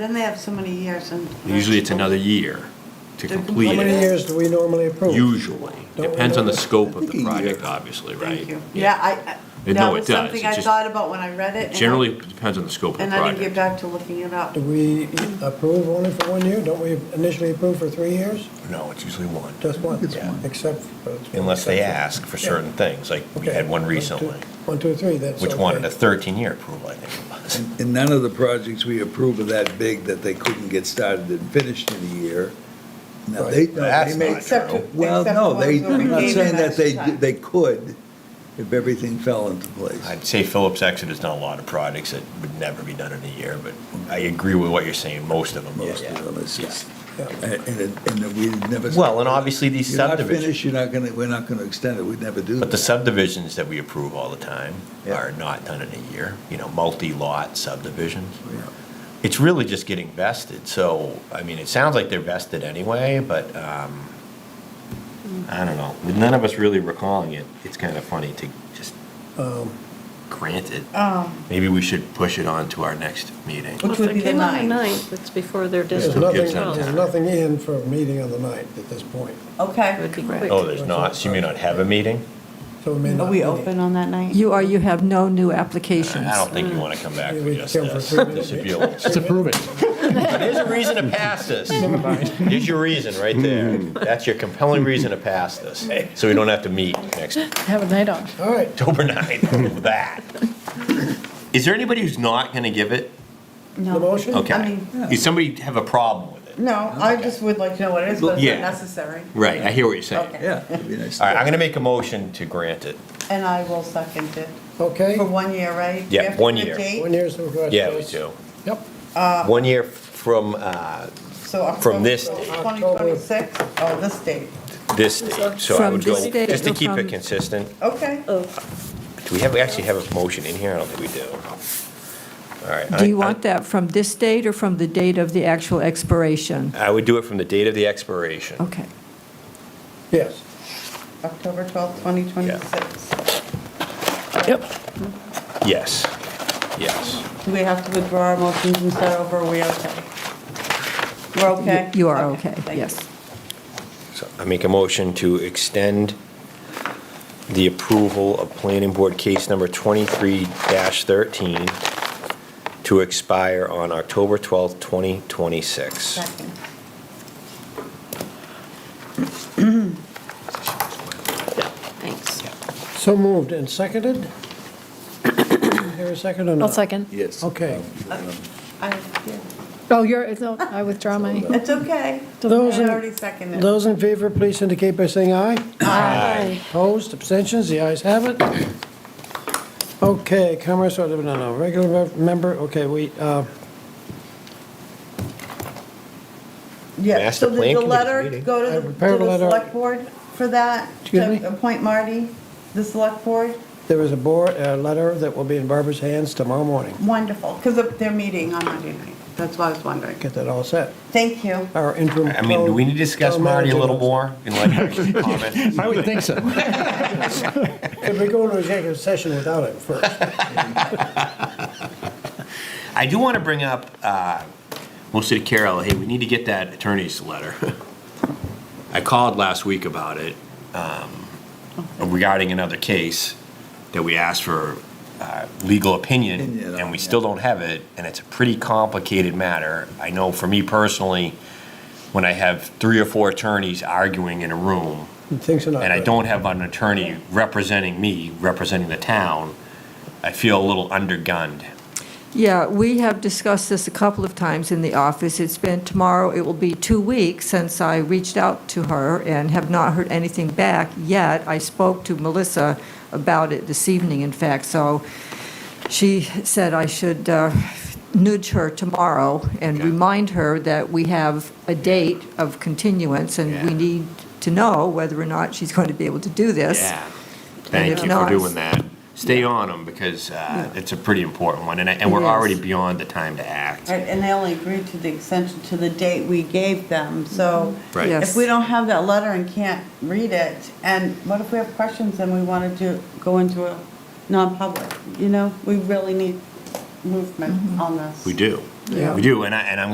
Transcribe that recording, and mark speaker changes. Speaker 1: Then they have so many years and.
Speaker 2: Usually it's another year to
Speaker 1: To complete
Speaker 2: complete it.
Speaker 1: it.
Speaker 3: How many years do we normally approve?
Speaker 2: Usually.
Speaker 3: Don't we
Speaker 2: Depends on the
Speaker 3: know?
Speaker 2: scope of
Speaker 4: think
Speaker 2: the
Speaker 4: a
Speaker 2: project,
Speaker 4: year.
Speaker 2: obviously, right?
Speaker 1: Thank you. Yeah, I- I,
Speaker 2: And
Speaker 1: that
Speaker 2: no, it
Speaker 1: was
Speaker 2: does.
Speaker 1: something
Speaker 2: It
Speaker 1: I
Speaker 2: just-
Speaker 1: thought about when I read it. and I-
Speaker 2: Generally depends on the scope of the
Speaker 1: And I didn't get
Speaker 2: project.
Speaker 1: back to looking it up.
Speaker 3: Do we approve only for one year? Don't we initially approve for three years?
Speaker 5: No, it's usually one,
Speaker 3: Just one?
Speaker 4: It's one.
Speaker 3: Except. for-
Speaker 5: unless they ask for certain things, like we
Speaker 3: Okay.
Speaker 5: had one
Speaker 3: two-
Speaker 5: recently,
Speaker 3: One, two, three, that's.
Speaker 5: which
Speaker 3: okay.
Speaker 5: wanted a 13-year approval, I think it was.
Speaker 4: And and none of the projects we approve are that big that they couldn't get started and finished in a year. Now, they,
Speaker 5: Right.
Speaker 4: no, they
Speaker 5: That's
Speaker 4: may,
Speaker 5: not Except- true.
Speaker 4: well,
Speaker 1: except
Speaker 4: no,
Speaker 1: the
Speaker 4: they,
Speaker 1: ones where we
Speaker 4: I'm not
Speaker 1: gave
Speaker 4: saying
Speaker 1: them
Speaker 4: that they,
Speaker 1: extra time.
Speaker 4: they could if everything fell into place.
Speaker 5: I'd say Phillips Exeter is not a lot of products that would never be done in a year, but I agree with what you're saying, most of them. yeah,
Speaker 4: Most of them, it's
Speaker 5: yeah.
Speaker 4: just, and, and it- and that we never.
Speaker 5: Well, and obviously these
Speaker 4: You're not
Speaker 5: subdivisions-
Speaker 4: finished, You're not gonna, we're not gonna extend it, we'd never do
Speaker 5: But
Speaker 4: that.
Speaker 5: the subdivisions that we approve all the time
Speaker 4: Yeah.
Speaker 5: are not done in a year, you know, multi-lot subdivisions.
Speaker 4: Yeah.
Speaker 5: It's really just getting vested, so, I mean, it sounds like they're vested anyway, but, um, I don't know, with none of us really recalling it, it's kind of funny to just
Speaker 3: Um,
Speaker 5: grant it.
Speaker 1: Um,
Speaker 5: Maybe we should push it on to our next meeting.
Speaker 1: Which would be
Speaker 6: Well, if they
Speaker 1: the
Speaker 6: came on the
Speaker 1: ninth.
Speaker 6: 9th, it's before their
Speaker 3: There's
Speaker 6: district
Speaker 5: Still
Speaker 3: nothing,
Speaker 5: gives them
Speaker 3: there's
Speaker 5: time.
Speaker 3: nothing in for a meeting on the ninth at this point.
Speaker 1: Okay.
Speaker 6: It would be quick.
Speaker 5: Oh, there's not, so you may not have a meeting?
Speaker 3: So we may not.
Speaker 1: Are we
Speaker 3: need it.
Speaker 1: open on that night?
Speaker 7: You are, you have no new applications.
Speaker 5: I don't think you want to come back for
Speaker 3: We
Speaker 5: just
Speaker 3: come for
Speaker 5: this.
Speaker 3: three minutes.
Speaker 5: This would be a little-
Speaker 3: Just approve
Speaker 8: it.
Speaker 5: There's a reason to pass this. There's your reason right there.
Speaker 3: Hmm.
Speaker 5: That's your compelling reason to pass this, so we don't have to meet next
Speaker 8: Have a night off.
Speaker 3: All right,
Speaker 5: October 9th with that. Is there anybody who's not going to give it?
Speaker 1: No.
Speaker 3: the motion?
Speaker 1: I
Speaker 5: Okay.
Speaker 1: mean-
Speaker 5: Does somebody have a problem with it?
Speaker 1: No, I just would like to know what it is, but it's
Speaker 5: Yeah.
Speaker 1: not necessary.
Speaker 2: Right, I hear what you're saying.
Speaker 1: Okay.
Speaker 4: Yeah, it'd be nice.
Speaker 5: All right, I'm going to make a motion to grant it.
Speaker 1: And I will second it.
Speaker 3: Okay,
Speaker 1: For one year, right?
Speaker 5: Yeah,
Speaker 1: You have to
Speaker 5: one
Speaker 1: give a
Speaker 5: year.
Speaker 1: date?
Speaker 3: one year's congratulations.
Speaker 5: Yeah, we do.
Speaker 3: Yep.
Speaker 5: One year from uh,
Speaker 1: So October.
Speaker 5: From this
Speaker 1: so
Speaker 5: date.
Speaker 1: 2026, oh, this date,
Speaker 5: this date, so I
Speaker 7: From
Speaker 5: would go,
Speaker 7: this date
Speaker 5: just to
Speaker 7: or
Speaker 5: keep it
Speaker 7: from-
Speaker 5: consistent.
Speaker 1: okay.
Speaker 6: Oh.
Speaker 5: Do we have, we actually have a motion in here? I don't think we do. All right.
Speaker 7: Do
Speaker 5: I-
Speaker 7: you
Speaker 5: I-
Speaker 7: want that from this date or from the date of the actual expiration?
Speaker 5: I would do it from the date of the expiration.
Speaker 7: Okay.
Speaker 3: Yes.
Speaker 1: October 12th, 2026.
Speaker 5: Yes, yes.
Speaker 1: Do we have to withdraw our motions and start over, are we okay? We're okay?
Speaker 7: You are okay,
Speaker 1: thank you.
Speaker 7: yes.
Speaker 5: So I make a motion to extend the approval of planning board case number 23-13 to expire on October 12th, 2026.
Speaker 1: Second.
Speaker 6: Thanks.
Speaker 3: So moved and seconded? Here a second or not?
Speaker 8: I'll second.
Speaker 4: Yes. Um,
Speaker 3: Okay.
Speaker 1: I- yeah.
Speaker 8: Oh, you're, it's- oh, I withdraw my.
Speaker 1: It's okay.
Speaker 3: Those
Speaker 1: I
Speaker 3: in-
Speaker 1: already seconded.
Speaker 3: Those in favor, please indicate by saying aye. Opposed, abstentions, the ayes have it. Okay, Commerce, no, no, regular mem- member, okay, we, uh,
Speaker 1: Yeah,
Speaker 5: Master
Speaker 1: so did
Speaker 5: Plan
Speaker 1: the
Speaker 5: Committee's
Speaker 1: letter
Speaker 5: meeting.
Speaker 1: go
Speaker 3: I
Speaker 1: to the, to
Speaker 3: prepared a
Speaker 1: the
Speaker 3: letter.
Speaker 1: select board for that?
Speaker 3: Excuse me?
Speaker 1: To appoint Marty, the select board?
Speaker 3: there is a board, a letter that will be in Barbara's hands tomorrow morning.
Speaker 1: Wonderful, because they're meeting on Monday night. That's what I was wondering.
Speaker 3: Get that all set.
Speaker 1: Thank you.
Speaker 3: Our interim.
Speaker 5: I mean, do we need to discuss
Speaker 3: town
Speaker 5: Marty a
Speaker 3: manager
Speaker 5: little
Speaker 3: wants-
Speaker 5: more? in light of your comment?
Speaker 8: I would think so.
Speaker 3: Could we go into executive session without it first?
Speaker 2: I do want to bring up, uh, mostly to Carol, hey, we need to get that attorney's letter. I called last week about it um, regarding another case that we asked for uh, legal opinion,
Speaker 4: Opinion
Speaker 2: and we
Speaker 4: on,
Speaker 2: still
Speaker 4: yeah.
Speaker 2: don't have it, and it's a pretty complicated matter. I know for me personally, when I have three or four attorneys arguing in a room,
Speaker 3: Things are not.
Speaker 2: and I
Speaker 3: good.
Speaker 2: don't have an attorney representing me, representing the town, I feel a little undergunned.
Speaker 7: Yeah, we have discussed this a couple of times in the office. It's been, tomorrow, it will be two weeks since I reached out to her and have not heard anything back yet. I spoke to Melissa about it this evening, in fact, so she said I should uh, nudge her tomorrow and
Speaker 2: Okay.
Speaker 7: remind her that we have a date of continuance, and we
Speaker 2: Yeah.
Speaker 7: need to know whether or not she's going to be able to do this.
Speaker 2: Yeah.
Speaker 7: And
Speaker 2: Thank
Speaker 7: if
Speaker 2: you for
Speaker 7: not-
Speaker 2: doing that. Stay on them because uh, it's a pretty important one, and I- and
Speaker 7: It
Speaker 2: we're
Speaker 7: is.
Speaker 2: already beyond the time to act.
Speaker 1: Right, And they only agreed to the extension to the date we gave them, so.
Speaker 2: Mm-hmm. Right.
Speaker 1: If
Speaker 7: Yes.
Speaker 1: we don't have that letter and can't read it, and what if we have questions and we wanted to go into a non-public? You know, we really need movement on this.
Speaker 2: We do.
Speaker 7: Yeah.
Speaker 2: We do, and I, and I'm